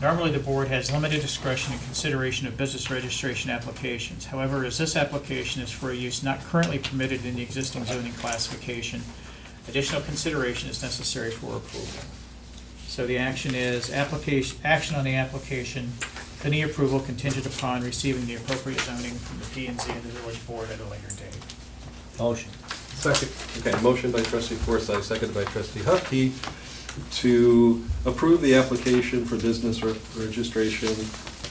Normally, the board has limited discretion in consideration of business registration applications. However, as this application is for a use not currently permitted in the existing zoning classification, additional consideration is necessary for approval. So the action is application, action on the application, any approval contingent upon receiving the appropriate zoning from the P and Z and the village board at a later date. Motion. Second. Okay, motion by trustee Forsythe, seconded by trustee Hupkey to approve the application for business re- registration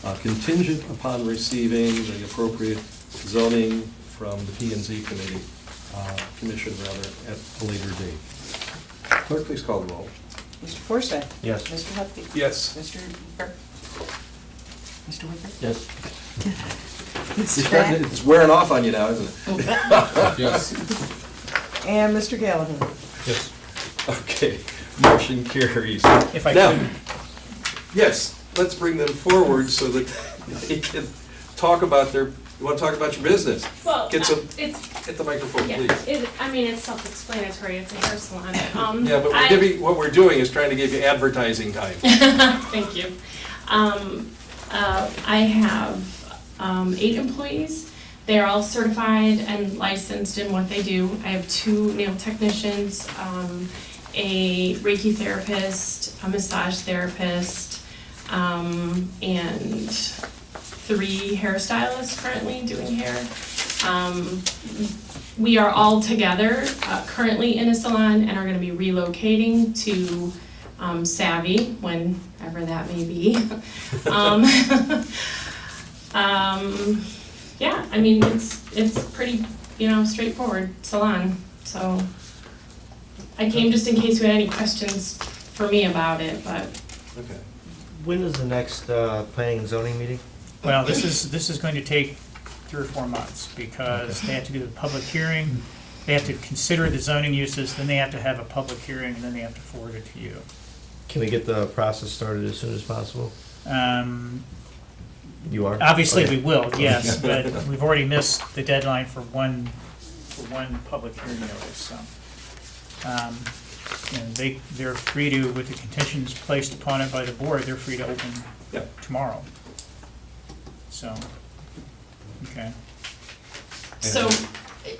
uh, contingent upon receiving the appropriate zoning from the P and Z committee, uh, commission rather, at a later date. Clerk, please call the roll. Mr. Forsyth? Yes. Mr. Hupkey? Yes. Mr. Wicker? Mr. Wicker? Yes. Mr. Beck? It's wearing off on you now, isn't it? And Mr. Gallagher? Yes. Okay, motion carries. If I Now, could- Yes, let's bring them forward so that they can talk about their, you want to talk about your business? Well, Get some, it's, get the microphone, yeah, please. it, I mean, it's self-explanatory, it's a hair salon. Um, Yeah, but I- we're giving, what we're doing is trying to give you advertising time. Thank you. Um, uh, I have, um, eight employees. They're all certified and licensed in what they do. I have two nail technicians, um, a Reiki therapist, a massage therapist, um, and three hairstylists currently doing hair. Um, we are all together, uh, currently in a salon and are gonna be relocating to, um, Savvy, whenever that may be. Um, um, yeah, I mean, it's, it's pretty, you know, straightforward salon, so. I came just in case you had any questions for me about it, but Okay. When is the next uh, planning and zoning meeting? Well, this is, this is going to take three or four months, because they have to do the public hearing, they have to consider the zoning uses, then they have to have a public hearing, and then they have to forward it to you. Can we get the process started as soon as possible? Um, You are? Obviously, we Okay. will, yes, but we've already missed the deadline for one, for one public hearing notice, so. Um, And they, they're free to, with the conditions placed upon it by the board, they're free to open Yep. tomorrow. So, okay. So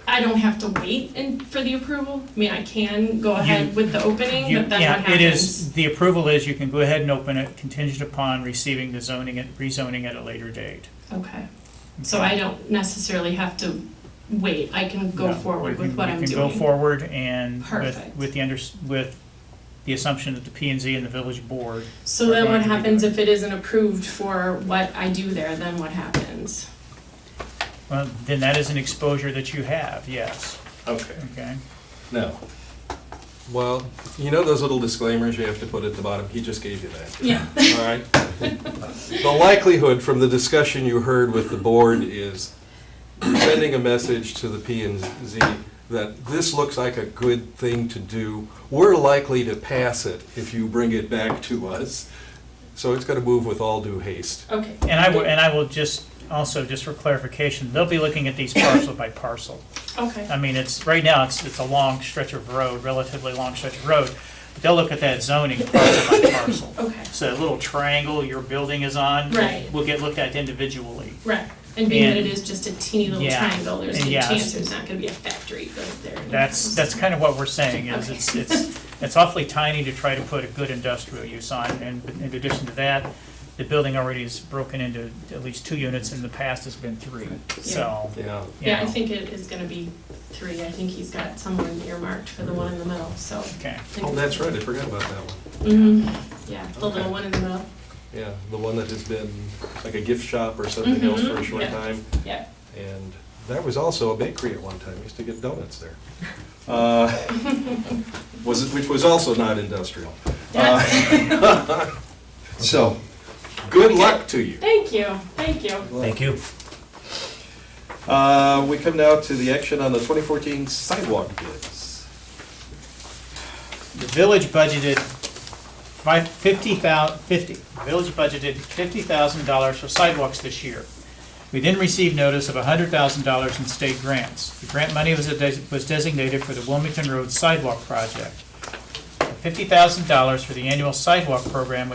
I don't have to wait in, for the approval? I mean, I can go ahead with the opening, You- but then what happens? Yeah, it is, the approval is you can go ahead and open it contingent upon receiving the zoning, at- rezoning at a later date. Okay, so I don't necessarily have to wait, I can go No, you forward can- with what I'm doing. You can go forward and with, Perfect. with the under, with the assumption that the P and Z and the village board, So then Or what going to be happens doing. if it isn't approved for what I do there, then what happens? well, then that is an exposure that you have, yes, Okay, okay? now, well, you know those little disclaimers you have to put at the bottom? He just gave you that. Yeah. All right. The likelihood from the discussion you heard with the board is sending a message to the P and Z that this looks like a good thing to do. We're likely to pass it if you bring it back to us. So it's gonna move with all due haste. Okay. And I will, and I will just, also, just for clarification, they'll be looking at these parcel by parcel. Okay, I mean, it's, right now, it's, it's a long stretch of road, relatively long stretch of road, but they'll look at that zoning parcel by parcel. okay, So that little triangle your building is on. Right. Will get looked at individually. right, and being that it And- is just a teeny little Yeah, triangle, there's and a yes. chance there's not gonna be a factory built there. That's, that's kind of what we're saying, is Okay. it's, it's, it's awfully tiny to try to put a good industrial use on. And in addition to that, the building already is broken into at least two units, in the past has been three, so. Yeah. you Yeah, I know, think it is gonna be three, I think he's got someone earmarked for the one in the middle, so. I Okay, think- Oh, that's right, I forgot about that one. Mhm, yeah, the Okay. little one in the middle, Yeah, the one that has been like a gift shop or something else for a Mhm, short yeah. time. yeah. And that was also a bakery at one time, used to get donuts there. Uh, Was, it- which was also not industrial. Uh, So, good luck to you. Thank you, thank you. Thank you. Uh, We come now to the action on the 2014 sidewalk bids. the village budgeted five, fifty thou, fifty, the village budgeted fifty thousand dollars for sidewalks this year. We then received notice of hundred thousand dollars in state grants. The grant money was, des- was designated for the Wilmington Road Sidewalk Project. Fifty thousand dollars for the annual sidewalk program